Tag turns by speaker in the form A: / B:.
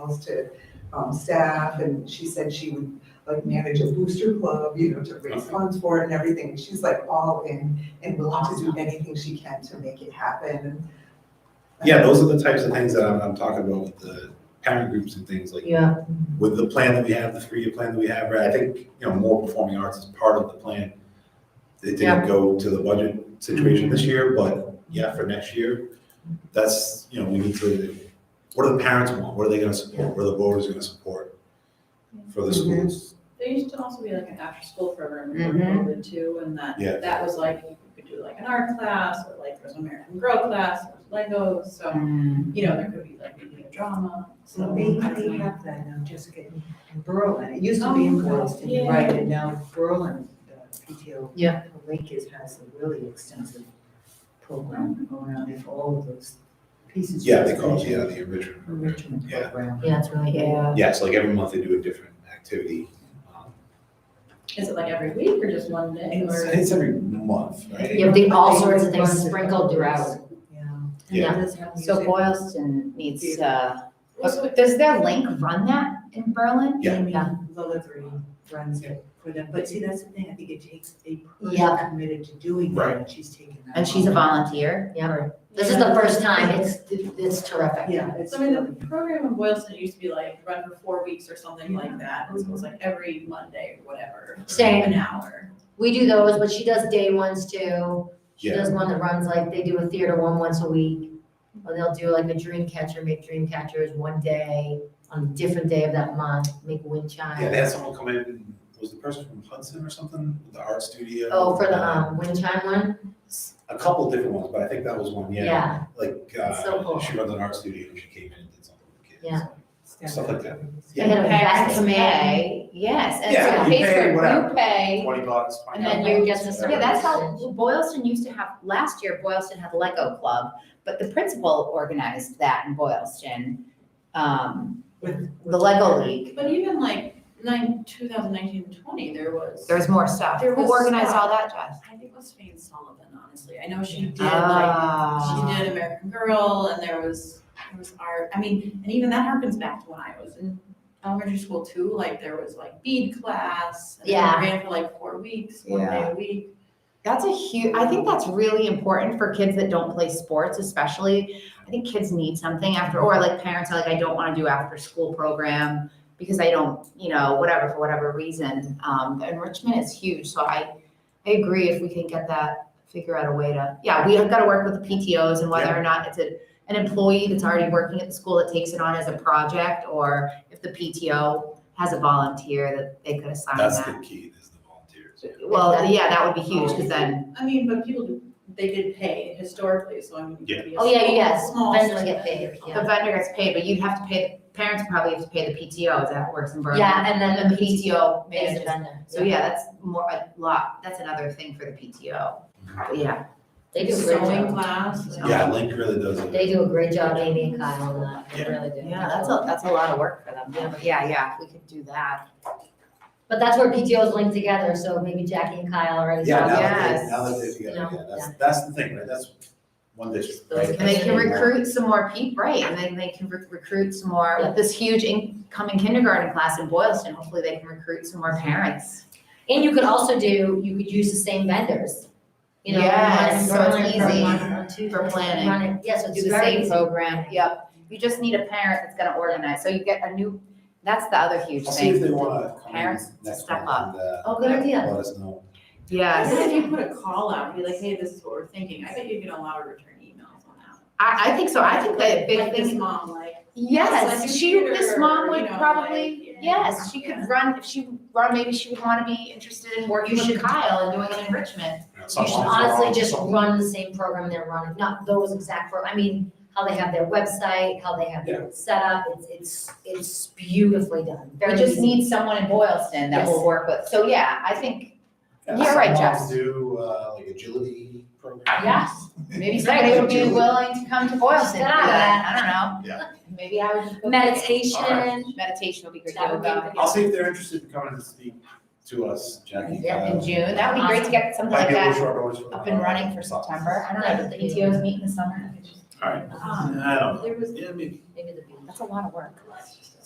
A: emails to um, staff, and she said she would like manage a booster club, you know, to raise
B: Okay.
A: funds for it and everything. She's like all in and willing to do anything she can to make it happen. and-
B: Yeah, those are the types of things that I'm, I'm talking about with the parent groups and things like
C: Yeah,
B: with the plan that we have, the three-year plan that we have, right, I think, you know, more performing arts is part of the plan. It
C: Yeah.
B: didn't
C: Mm-hmm.
B: go to the budget situation this year, but yeah, for next year, that's, you know, we need to, what do the parents want? What are they gonna support? What are the voters gonna support for the
C: Mm-hmm.
B: schools?
D: There used to also be like an after-school program before COVID too, and that,
B: Yeah.
D: that was like, you could do like an art class, or like there's an American Girl class, there's Legos, so, you know, there could be like maybe a drama, so.
E: So
D: I
E: they,
D: don't
E: they
D: know.
E: have that now, Jessica, in in Berlin, it used to be in
D: Oh,
E: Boylston,
D: yeah.
E: right, and now Berlin, the PTO.
C: Yeah.
E: Lake is, has a really extensive program going on, and all of those pieces.
B: Yeah, they call it, yeah, the original.
E: Enrichment
B: Yeah.
E: program.
C: yeah, it's really good.
E: Yeah.
B: Yeah, so like every month they do a different activity. Um,
D: Is it like every week or just one day
B: It's,
D: or?
B: it's every month, right?
C: Yeah, but they all sorts of things sprinkled throughout.
E: Yeah.
B: Yeah.
F: So Boylston needs, uh,
D: Also,
F: oh, does their link run that in Berlin?
B: Yeah.
F: Yeah.
E: um, Delivery runs it for them, but see, that's the thing, I think it takes a
C: Yeah.
E: person committed to doing
B: Right.
E: that, and she's taken that.
F: And she's a
E: on.
F: volunteer? Yeah.
C: This is the first time, it's, it's terrific.
E: Yeah, it's
D: So I mean,
E: really.
D: the program in Boylston used to be like run for four weeks or something like that, and so it was like every Monday or whatever,
C: Same.
D: an hour.
C: We do those, but she does day ones too. She
B: Yeah.
C: does one that runs like, they do a theater one once a week. Or they'll do like a dream catcher, make dream catchers one day, on a different day of that month, make wind
B: Yeah, they
C: chime.
B: had someone come in, was the person from Hudson or something, the art studio?
C: Oh, for the, um, wind chime one?
B: A couple different ones, but I think that was one, yeah.
C: Yeah,
B: Like,
C: It's so
B: uh,
C: cool.
B: she runs an art studio and she came in and did something with the kids.
C: Yeah.
B: Stuff like that.
C: They had a
F: Parents
C: vest man.
F: pay, yes, and
B: Yeah,
F: so
B: you
F: it pays
B: pay
F: for,
B: whatever.
F: you pay,
B: Twenty bucks, twenty
F: and then
B: dollars.
F: you get the,
B: whatever.
F: yeah, that's how, Boylston used to have, last year Boylston had Lego Club, but the principal organized that in Boylston. Um,
E: With-
F: the Lego League,
D: But even like nine, two thousand nineteen and twenty, there was.
F: there's more stuff.
D: There
F: Who
D: was
F: organized
D: stuff.
F: all that, Josh?
D: I think it was Faye Sullivan, honestly. I know she did like,
F: Ah.
D: she did American Girl and there was, there was art. I mean, and even that harkens back to when I was in elementary school too, like there was like bead class. and it
C: Yeah.
D: Ran for like four weeks, one day a week.
F: That's a huge, I think that's really important for kids that don't play sports, especially. I think kids need something after, or like parents are like, I don't want to do after school program because I don't, you know, whatever, for whatever reason. Um, the enrichment is huge. So I, I agree if we can get that, figure out a way to, yeah, we have got to work with the PTOs and whether or not it's a, an employee that's already working at the school that takes it on as a project, or if the PTO has a volunteer that they could assign
B: That's the
F: that.
B: key, is the volunteers.
F: Well, yeah, that would be huge because then.
D: I mean, but people, do they did pay historically, so I mean. it could be a
C: Oh, yeah,
D: small-
C: yes.
D: small
C: Vendors get paid,
D: percentage.
C: yeah.
F: The vendor gets paid, but you'd have to pay, parents probably have to pay the PTO, is that how it works in Berlin?
C: Yeah, and then
F: And
C: the
F: the PTO
C: is a
F: manages.
C: vendor.
F: So yeah, that's more, a lot, that's another thing for the PTO. But Yeah,
C: They do a great
D: Sewing
C: job.
D: class. and-
B: Yeah, Link really does it.
C: They do a great job, Amy and Kyle, on that. They
B: Yeah.
C: really do.
F: yeah, that's a, that's a lot of work for them, yeah, but yeah, yeah, if we could do that.
C: But that's where PTOs link together, so maybe Jackie and Kyle already.
B: Yeah,
C: saw
B: now that
F: Yes.
B: they, now that they're
C: You know,
B: together, yeah, that's, that's the thing, right, that's one district,
C: Those
B: right?
F: And they can
C: Yeah.
F: recruit some more people, right, and then they can re- recruit some more,
C: Yeah.
F: with this huge incoming kindergarten class in Boylston, hopefully they can recruit some more parents.
C: And you could also do, you could use the same vendors. You know, run
F: Yes, so it's
C: Berlin from
F: easy
C: one- one, two,
F: for planning.
C: run it- Yeah, so it's
F: do the
C: very
F: same
C: easy.
F: program, yep. You just need a parent that's gonna organize, so you get a new, that's the other huge
B: I'll
F: thing.
B: see if they wanna come in
F: Parents
B: next
F: step
B: month
F: up.
B: and, uh,
C: Oh, good idea.
B: let us know.
D: Even
F: Yes,
D: if you put a call out, be like, hey, this is what we're thinking, I bet you get a lot of return emails on that.
F: I, I think so, I think that big
D: Like this
F: thing,
D: mom, like. Like
F: yes,
D: this
F: she, this
D: tutor,
F: mom
D: you
F: would
D: know,
F: probably,
D: like,
F: yes, she could
D: yeah.
F: run, if she, run. maybe she would wanna be interested in working
C: You
F: with
C: should-
F: Kyle and doing an enrichment.
B: You know,
C: You
B: sometimes
C: should
B: they're all-
C: honestly just
B: some-
C: run the same program they're running, not those exact, pro- I mean, how they have their website, how they have their setup, it's, it's, it's beautifully done, very
F: We
C: easy.
F: just need someone in Boylston that will
C: Yes.
F: work with, so yeah, I think,
B: Yeah,
F: You're right,
B: some
F: Jess.
B: moms do, uh, like agility programs.
F: Yes. maybe
B: Right,
F: somebody would be
B: Julie.
F: willing to come to Boylston to do
C: Yeah.
F: that, I don't know.
B: Yeah.
F: Maybe I would.
C: Meditation,
B: Alright.
F: Meditation would be great,
C: That would be
F: yoga.
C: great.
B: I'll see if they're interested in coming to speak to us, Jackie.
F: Yeah, in
B: Uh,
F: June, that would be great to get something
B: Might
F: like
B: be a little
F: that
B: short orders for.
F: up and running for September, I don't
C: That
F: know,
C: would
F: the
C: be-
F: PTOs meet in the summer,
B: All right,
D: Um,
B: I don't know,
D: There was,
B: yeah, maybe.
C: maybe the beach.
F: that's a lot of work.
D: that's just a